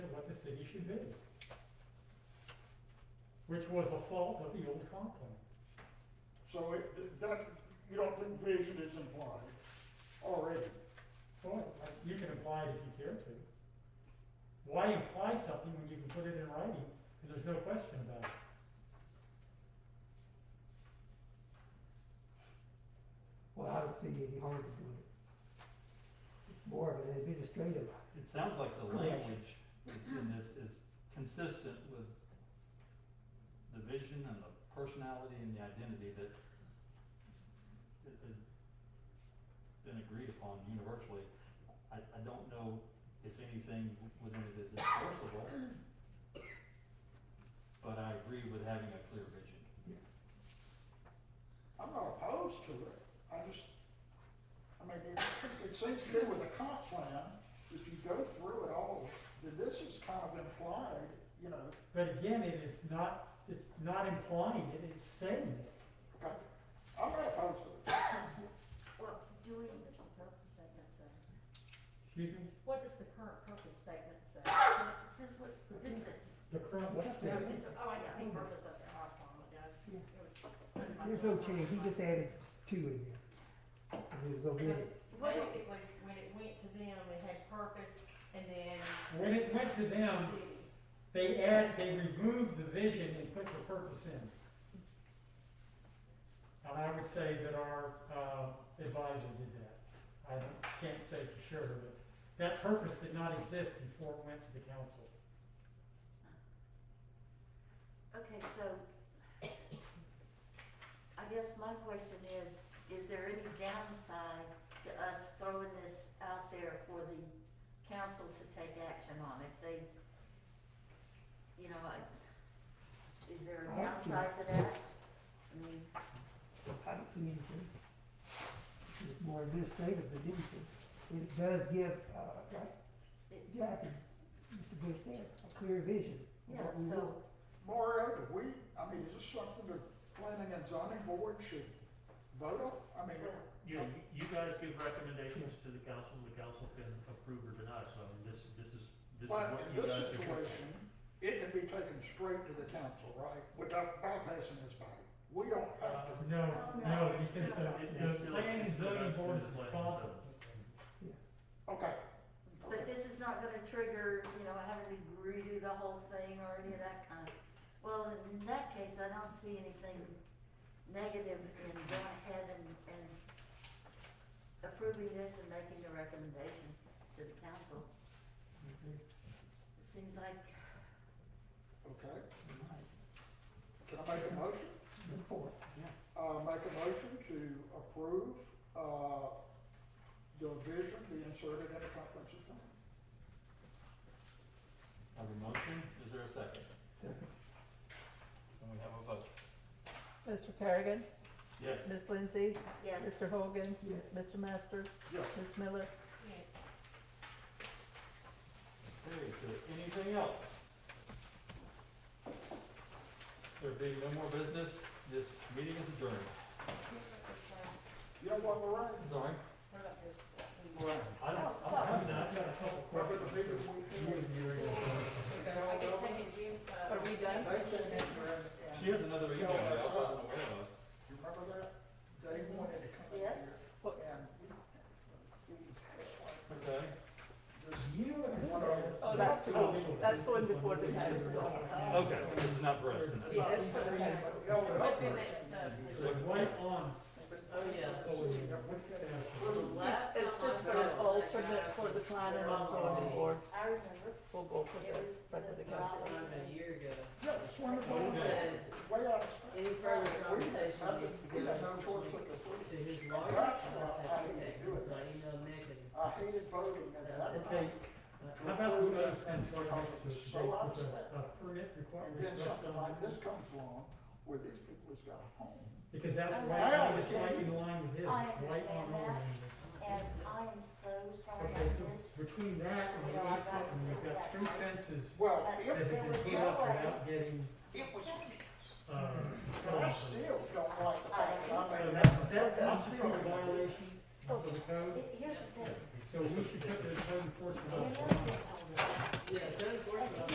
she did. Which was a fault of the old compton. So it, th- that, you don't think vision is implied already? Well, I- you can imply it if you care to. Why imply something when you can put it in writing and there's no question about it? Well, I don't see any harm in doing it. It's more of an administrative, It sounds like the Correct. language that's in this is consistent with the vision and the personality and the identity that that has been agreed upon universally. I, I don't know if anything within it is enforceable, but I agree with having a clear vision. I'm not opposed to it, I just, I mean, it, it seems to me with the comp plan, if you go through it all, then this is kind of implied, you know, But again, it is not, it's not implying it, it's saying it. okay, I'm not opposed to it. Well, doing the purpose statement say? Excuse me? What does the current purpose statement say? It says what this is. The current What's what's there? that? It's- oh, I got some purpose up there, Oh, I apologize. It Yeah. was- there's no change, he just added two in there. And it was omitted. Basically, when it went to them, it had purpose and then When it went to them, city. they add, they removed the vision and put the purpose in. And I would say that our uh, advisor did that. I don't- can't say for sure, but that purpose did not exist before it went to the council. Okay, so I guess my question is, is there any downside to us throwing this out there for the council to take action on if they, you know, I, is there a I don't see- downside to that? I mean, I don't see anything. It's just more administrative than anything. It does give, uh, like It- Jack and Mr. Bush said, a clear vision of yeah, what we so, want. Moreover, we, I mean, is this something the planning and zoning board should vote on? I mean, You, you guys give recommendations to the council, and the council can approve or deny, so this, this is, this is but what in you this guys do. situation, it can be taken straight to the council, right, without bypassing this body? We don't have to. Uh, No, no, no, It- because the, it's the still- planning and it's still zoning goes board through is the planning and responsible. Okay. but this is not gonna trigger, you know, having to redo the whole thing or any of that kind of. Well, in- in that case, I don't see anything negative in going ahead and, and approving this and making a recommendation to the council. It seems like, Okay, can I make a motion? Look for it. Uh, make a motion to approve, uh, the vision be inserted in the comprehensive plan. Have a motion, is there a second? Second. Can we have a vote? Mr. Kerrigan, Yes. Ms. Lindsay, yes, Mr. Hogan, Yes. Mr. Masters, Yes. Ms. Miller. Yes. Okay, is there anything else? There being no more business, this meeting is adjourned. You know what, Lorraine? Sorry, What about this? Lorraine. I don't, I don't have that. I've got a couple Remember the questions. meeting we had? I guess they can do, uh, Are we done? They said that, Lorraine, She has another email that I wasn't aware of. you remember that? They wanted to come here. Yes. What's- And we, Okay. You and One of- Oh, that's too Oh, That's going before the council. Okay, this is not for us tonight. Yes, for the council. What's in that stuff? Right on. Oh, yeah. Last It's time just I for voted, an I alternate got for the planning and zero zoning votes. board. I remember, We'll go for it was. the, back to the council. lobbying. year ago. Yeah, it's one of Okay. those, way out of spec. Any further We did conversation needs nothing. to We go had no to choice but to approve it. his lawyer, I That's said, why I didn't okay, do it. so I emailed Nick and I hated voting and that. Okay, how about we go and try to state So I with said- a a permit And requirement. then something like this comes along, where these people has got a home. Because that's I right, on- know. it's right in line with his, I right on understand line. and I am so sorry Okay, I missed. so between that and the Yeah, I eight gotta foot, and we've sit got back. three fences Well, Uh, that it, have There been was put no up way. without getting, it was, uh. but I still don't like the fact that So I made that's, that. that's I also a still don't like it. violation of the code, Here's the thing, so we should put the code enforcement you know officer. that I was- Yeah, third, fourth,